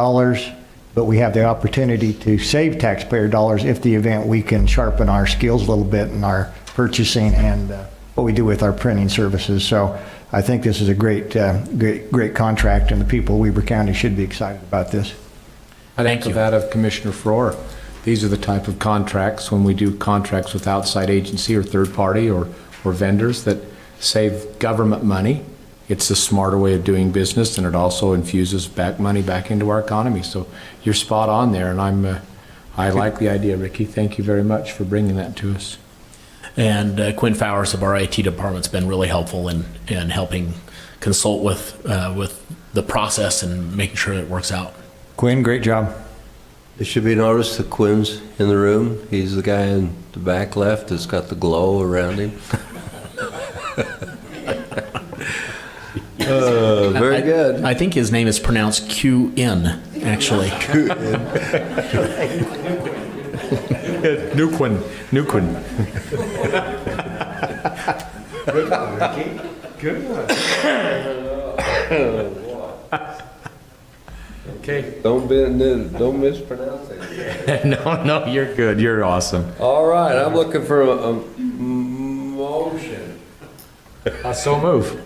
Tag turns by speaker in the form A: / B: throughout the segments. A: dollars, but we have the opportunity to save taxpayer dollars if the event, we can sharpen our skills a little bit in our purchasing and uh, what we do with our printing services. So I think this is a great, uh, great, great contract, and the people of Weber County should be excited about this.
B: I'd echo that of Commissioner Faur. These are the type of contracts, when we do contracts with outside agency or third party or, or vendors that save government money. It's a smarter way of doing business and it also infuses back money back into our economy. So you're spot on there and I'm, uh, I like the idea, Ricky. Thank you very much for bringing that to us.
C: And uh, Quinn Fowers of our IT department's been really helpful in, in helping consult with, uh, with the process and making sure it works out.
A: Quinn, great job.
D: It should be noticed that Quinn's in the room. He's the guy in the back left that's got the glow around him. Uh, Very good.
C: I think his name is pronounced QN, actually.
B: New Quinn, New Quinn.
D: Don't be- don't mispronounce it.
B: No, no, you're good. You're awesome.
D: All right, I'm looking for a a motion.
B: I so move.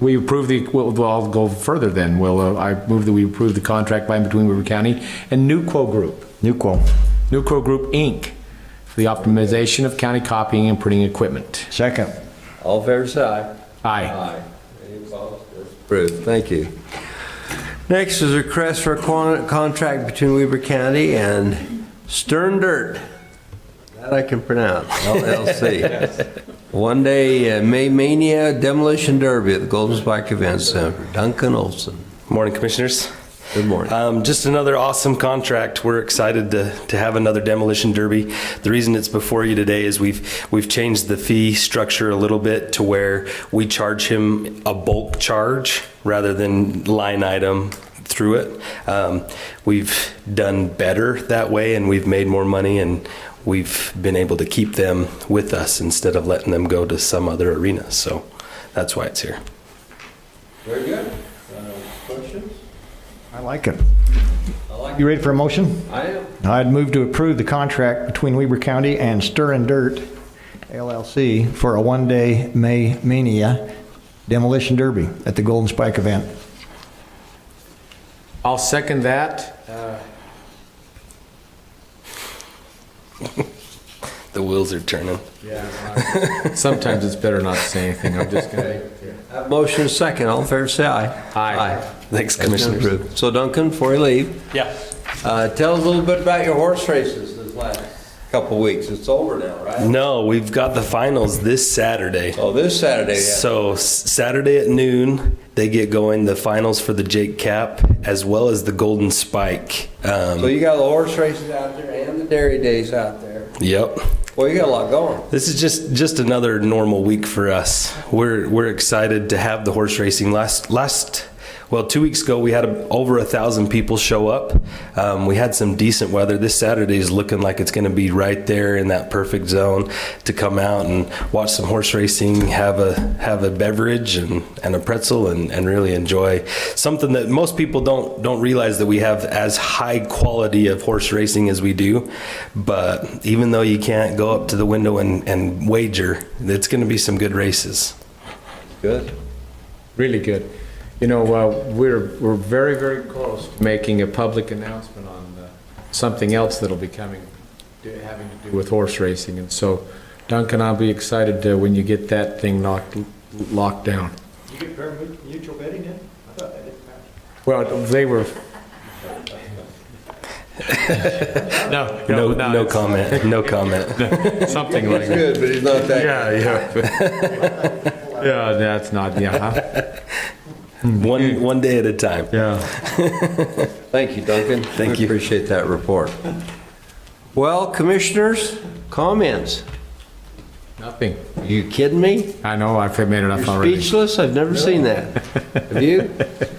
B: We approve the, well, well, I'll go further then. Well, uh, I move that we approve the contract by and between Weaver County and Nuquo Group,
A: Newcomb,
B: Nuquo Group, Inc., for the optimization of county copying and printing equipment.
A: second.
D: All fair side.
B: Aye.
D: Any opposed? It's Approved, thank you. Next is a request for a con- contract between Weber County and Stern Dirt. That I can pronounce, LLC. One Day uh, May Mania Demolition Derby at the Golden Spike Event Center. Duncan Olson,
E: Morning, Commissioners.
D: good morning.
E: Um, just another awesome contract. We're excited to, to have another demolition derby. The reason it's before you today is we've we've changed the fee structure a little bit to where we charge him a bulk charge rather than line item through it. Um, we've done better that way, and we've made more money, and we've been able to keep them with us instead of letting them go to some other arena. So that's why it's here.
D: Very good. Uh, Questions?
A: I like it.
D: I like
A: You ready for a motion?
D: I am.
A: I'd move to approve the contract between Weber County and Stir and Dirt LLC for a one-day May Mania demolition derby at the Golden Spike event.
B: I'll second that. Uh,
E: The wheels are turning.
B: Sometimes it's better not to say anything. I'm just gonna.
D: Have Motion is second, all fair say aye.
B: Aye.
E: Thanks,
D: That's been
E: Commissioners.
D: approved. So Duncan, before you leave,
C: Yeah.
D: uh, tell us a little bit about your horse races this last couple weeks. It's over now, right?
E: No, we've got the finals this Saturday.
D: Oh, this Saturday, yeah.
E: So s- Saturday at noon, they get going the finals for the Jake Cap as well as the Golden Spike.
D: So
E: Um,
D: you got the horse races out there and the dairy days out there.
E: yep.
D: Well, you got a lot going.
E: This is just just another normal week for us. We're we're excited to have the horse racing. Last last well, two weeks ago we had a, over a thousand people show up. Um, we had some decent weather. This Saturday is looking like it's going to be right there in that perfect zone to come out and watch some horse racing, have a have a beverage and, and a pretzel, and, and really enjoy something that most people don't don't realize that we have as high quality of horse racing as we do. But even though you can't go up to the window and, and wager, it's going to be some good races.
D: Good.
B: Really good. You know, uh, we're, we're very, very close to making a public announcement on uh, something else that'll be coming, do- having to do with horse racing. And so Duncan, I'll be excited uh, when you get that thing knocked, locked down.
A: You get fair mutual betting in? I thought that didn't pass.
B: Well, they were. No,
E: No, no,
B: it's
E: comment. No comment.
B: Something like that.
D: Good, but he's not that.
B: Yeah, yeah. Yeah, that's not, yeah.
E: one one day at a time.
B: Yeah.
D: Thank you, Duncan. Thank
E: you.
D: Appreciate that report. Well, commissioners, comments.
B: Nothing.
D: Are you kidding me?
B: I know, I've made enough
D: You're
B: already.
D: speechless? I've never seen that. Have you?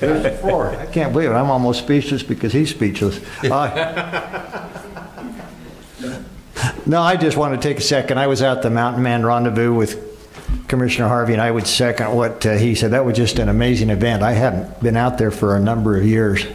A: I can't believe it. I'm almost speechless because he's speechless. Uh, No, I just want to take a second. I was at the Mountain Man Rendezvous with Commissioner Harvey, and I would second what uh, he said. That was just an amazing event. I hadn't been out there for a number of years.